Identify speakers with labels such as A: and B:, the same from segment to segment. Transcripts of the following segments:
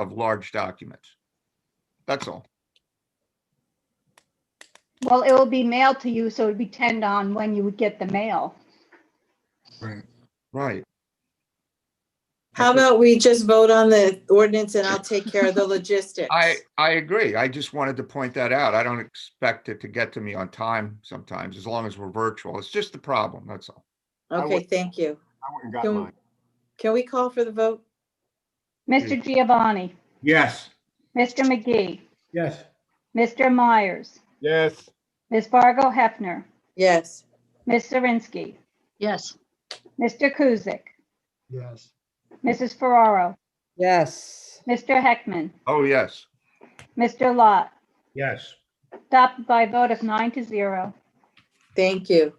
A: of large documents. That's all.
B: Well, it will be mailed to you, so it'd depend on when you would get the mail.
A: Right. Right.
C: How about we just vote on the ordinance and I'll take care of the logistics?
A: I, I agree. I just wanted to point that out. I don't expect it to get to me on time sometimes, as long as we're virtual. It's just the problem, that's all.
C: Okay, thank you.
D: I went and got
C: Can
D: mine.
C: can we call for the vote?
B: Mr. Giovanni,
E: Yes.
B: Mr. McGee,
E: Yes.
B: Mr. Myers,
D: Yes,
B: Ms. Fargo Hefner,
C: Yes,
B: Ms. Zirinsky,
F: Yes,
B: Mr. Kuzic,
E: Yes.
B: Mrs. Ferraro,
G: Yes,
B: Mr. Heckman,
A: Oh, yes.
B: Mr. Lot,
E: Yes.
B: adopted by a vote of nine to zero.
C: thank you.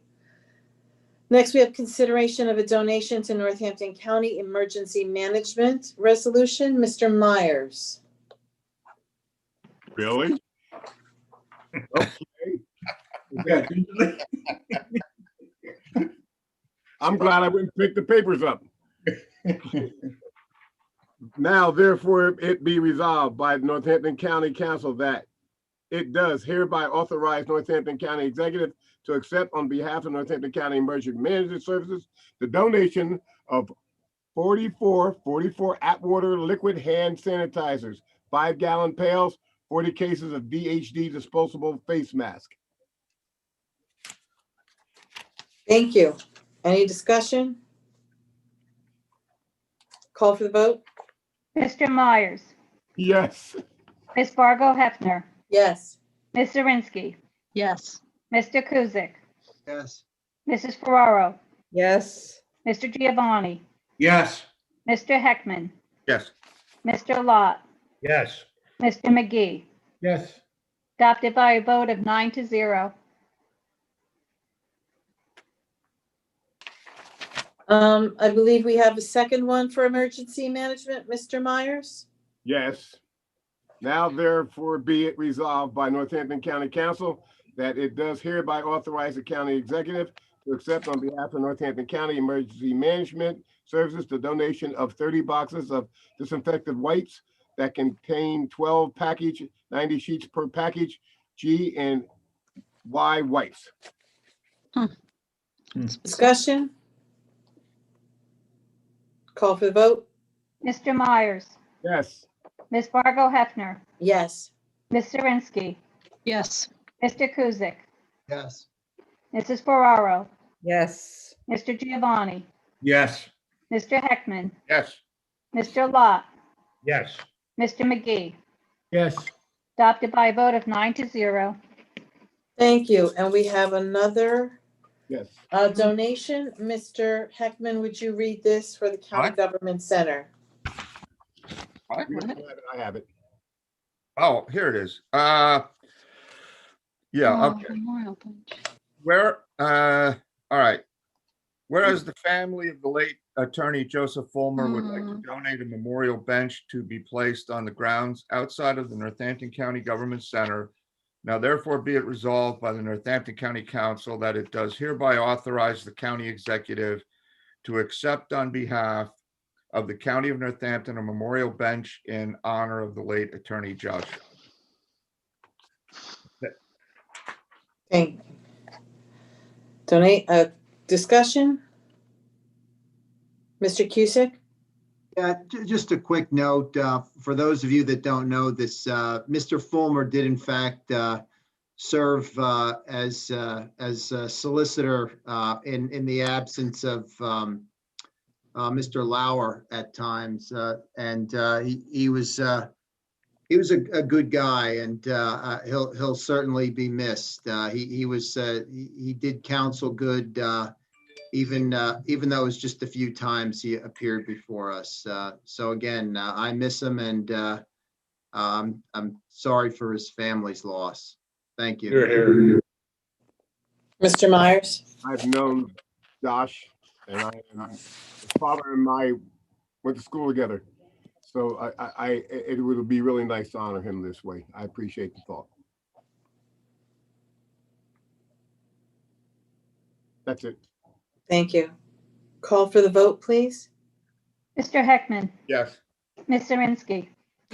C: Next, we have consideration of a donation to Northampton County Emergency Management Resolution. Mr. Myers.
D: really? I'm glad I went and picked the papers up. Now therefore it be resolved by the Northampton County Council that it does hereby authorize Northampton County Executive to accept on behalf of Northampton County Emergency Management Services the donation of 44, 44 Atwater liquid hand sanitizers, five gallon pails, 40 cases of DHD disposable face mask.
C: Thank you. Any discussion? Call for the vote?
B: Mr. Myers,
D: Yes.
B: Ms. Fargo Hefner,
C: Yes,
B: Ms. Zirinsky,
F: yes,
B: Mr. Kuzic,
E: Yes.
B: Mrs. Ferraro,
G: yes,
B: Mr. Giovanni,
E: Yes.
B: Mr. Heckman,
A: Yes.
B: Mr. Lot,
E: Yes.
B: Mr. McGee,
E: Yes.
B: adopted by a vote of nine to zero.
C: um, I believe we have a second one for emergency management, Mr. Myers?
D: Yes. Now therefore be it resolved by Northampton County Council that it does hereby authorize the county executive to accept on behalf of Northampton County Emergency Management Services the donation of thirty boxes of disinfectant wipes that contain twelve package, ninety sheets per package, G and Y wipes.
C: Discussion? Call for the vote?
B: Mr. Myers,
D: Yes.
B: Ms. Fargo Hefner,
C: Yes.
B: Ms. Zirinsky,
F: yes,
B: Mr. Kuzic,
E: Yes.
B: Mrs. Ferraro,
G: yes,
B: Mr. Giovanni,
E: Yes.
B: Mr. Heckman,
A: Yes.
B: Mr. Lot,
E: Yes.
B: Mr. McGee,
E: Yes.
B: adopted by a vote of nine to zero.
C: Thank you. And we have another
D: Yes.
C: uh, donation. Mr. Heckman, would you read this for the County
A: Aye.
C: Government Center?
A: All right.
D: I have it.
A: Oh, here it is. Uh, yeah,
F: Oh,
A: okay.
F: Memorial Bench.
A: Where, uh, all right. Whereas the family of the late attorney Joseph Fulmer would like to donate a memorial bench to be placed on the grounds outside of the Northampton County Government Center. Now therefore be it resolved by the Northampton County Council that it does hereby authorize the county executive to accept on behalf of the county of Northampton a memorial bench in honor of the late attorney Joshua.
C: Thank. Donate, uh, discussion? Mr. Cusick?
H: Yeah, ju- just a quick note, uh, for those of you that don't know this, uh, Mr. Fulmer did in fact, uh, serve, uh, as, uh, as a solicitor, uh, in, in the absence of, um, uh, Mr. Lauer at times, uh, and, uh, he, he was, uh, he was a, a good guy and, uh, uh, he'll, he'll certainly be missed. Uh, he, he was, uh, he, he did counsel good, uh, even, uh, even though it was just a few times he appeared before us. Uh, So again, uh, I miss him and uh, um, I'm sorry for his family's loss. Thank you.
C: Mr. Myers?
D: I've known Josh and I, and I- his father and I went to school together. So I, I, I, it would be really nice to honor him this way. I appreciate the thought. That's it.
C: Thank you. Call for the vote, please?
B: Mr. Heckman,
A: Yes.
B: Ms. Zirinsky,